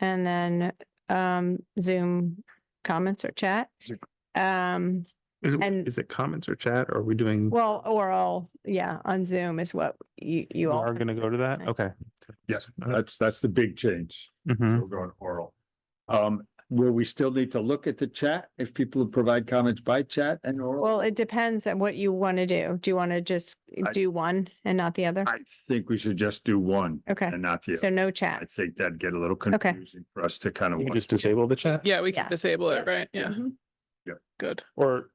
and then um Zoom comments or chat. Zoom. Um, Is it, And- is it comments or chat or are we doing? well, or all, yeah, on Zoom is what you We you all. are gonna go to that? Okay. Yes, that's, that's the big change. Mm-hmm. We're going oral. Um, will we still need to look at the chat if people provide comments by chat and oral? Well, it depends on what you want to do. Do you want to just I- do one and not the other? I think we should just do one Okay, and not the so other. no I chat. think that'd get a little Okay. confusing for us to kind You can of. just disable the chat? Yeah, we can Yeah. disable it, Yeah. right? Yeah, Mhm. good. Or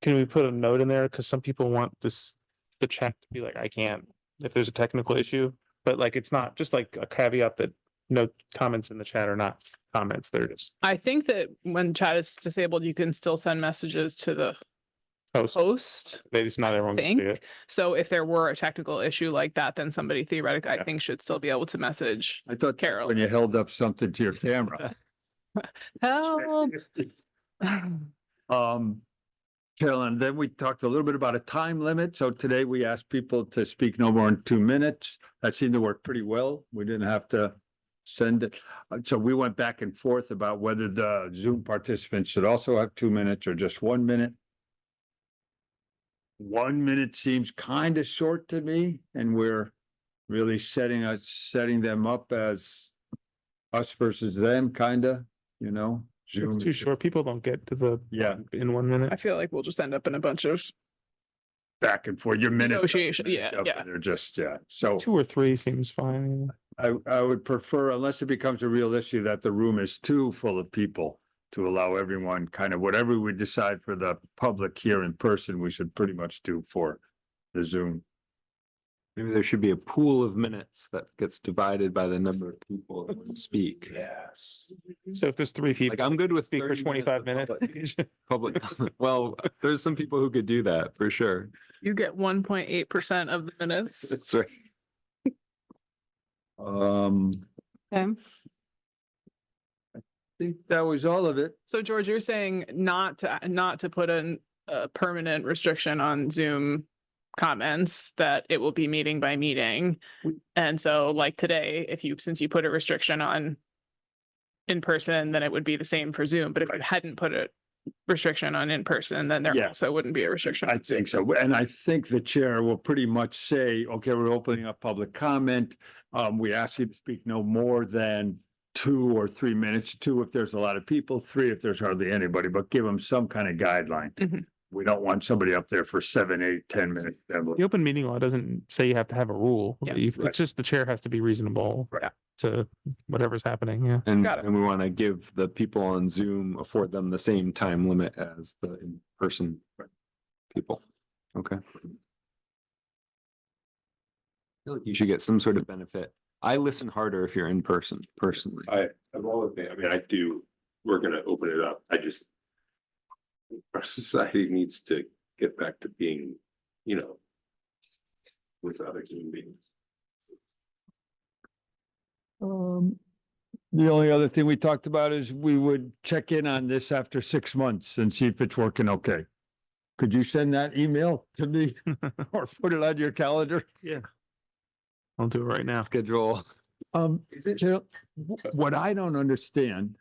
can we put a note in there? Cause some people want this, the chat to be like, I can't, if there's a technical issue. But like, it's not just like a caveat that no comments in the chat are not comments. They're just I think that when chat is disabled, you can still send messages to the posts. Oh. host. They just not everyone can see Think. it. So if there were a technical issue like that, then somebody theoretically, I Yeah. think, should still be able to message. I thought Carol. when you held up something to your camera. Help. Um, Carolyn, then we talked a little bit about a time limit. So today we asked people to speak no more than two minutes. That seemed to work pretty well. We didn't have to send it. Uh, So we went back and forth about whether the Zoom participants should also have two minutes or just one minute. One minute seems kind of short to me and we're really setting us, setting them up as us versus them, kind of, you know? It's Zoom too is- short. People don't get to the, Yeah. in one I minute. feel like we'll just end up in a bunch of, back and forth, your minutes. Negotiation, are minutes yeah, up, yeah. and They're just, yeah, so Two or three seems fine. I, I would prefer, unless it becomes a real issue, that the room is too full of people to allow everyone, kind of whatever we decide for the public here in person, we should pretty much do for the Zoom. Maybe there should be a pool of minutes that gets divided by the number of people that want to speak. Yes. So if there's three people. Like, I'm good with Speak for 30 twenty-five minutes minutes. of Public, public- well, there's some people who could do that for sure. you get one point eight percent of the minutes. That's right. Um, I think that was all of it. So George, you're saying not to, not to put in a permanent restriction on Zoom comments, that it will be meeting by meeting. And so like today, if you, since you put a restriction on in person, then it would be the same for Zoom, but if you hadn't put a restriction on in person, then there Yeah. also wouldn't be a restriction. I on Zoom. think so. And I think the chair will pretty much say, okay, we're opening up public comment. Um, we ask you to speak no more than two or three minutes, two if there's a lot of people, three if there's hardly anybody, but give them some kind of guideline. Mhm. We don't want somebody up there for seven, eight, ten minutes. The open meeting law doesn't say you have to have a rule. Yeah. You- Right. It's just the chair has to be reasonable Right. to whatever's happening. Yeah. And, Got it. and we want to give the people on Zoom, afford them the same time limit as the in-person people. Okay. I feel like You should get some sort of benefit. I listen harder if you're in person, personally. Uh, I, I'm all of it. I mean, I do, we're gonna open it up. I just. Our society needs to get back to being, you know. Without a human beings. Um, the only other thing we talked about is we would check in on this after six months and see if it's working okay. Could you send that email to me or put it on your calendar? I'll do it right now. Schedule. Um, Gerald, wh- what I don't understand,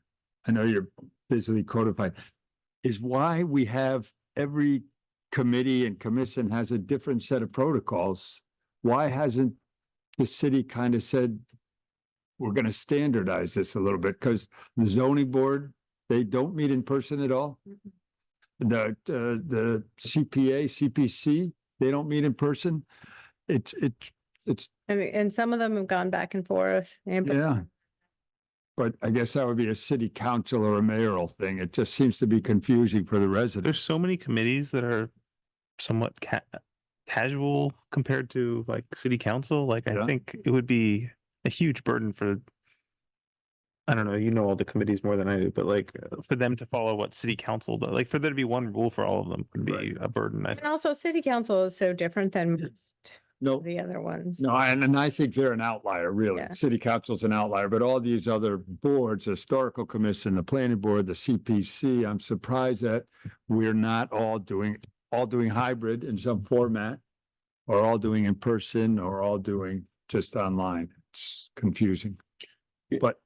I know you're busily codified, is why we have every committee and commission has a different set of protocols. Why hasn't the city kind of said, we're going to standardize this a little bit? Because the zoning board, they don't meet in person at all. The, uh, the CPA, CPC, they don't meet in person. It's, it's, it's I mean, and some of them have gone back and forth. and- yeah. But I guess that would be a city council or a mayoral thing. It just seems to be confusing for the There's residents. so many committees that are somewhat ca- casual compared to like city council. Like I Yeah. think it would be a huge burden for I don't know, you know all the committees more than I do, but like uh, for them to follow what city council, does. like for there to be one rule for all of them would Right. be a burden. I And also city council is so different than most No, of the other ones. no, and, and I think they're an outlier, really. Yeah. City council's an outlier, but all these other boards, historical commission, the planning board, the CPC, I'm surprised that we're not all doing, all doing hybrid in some format or all doing in person or all doing just online. It's confusing. Yeah. But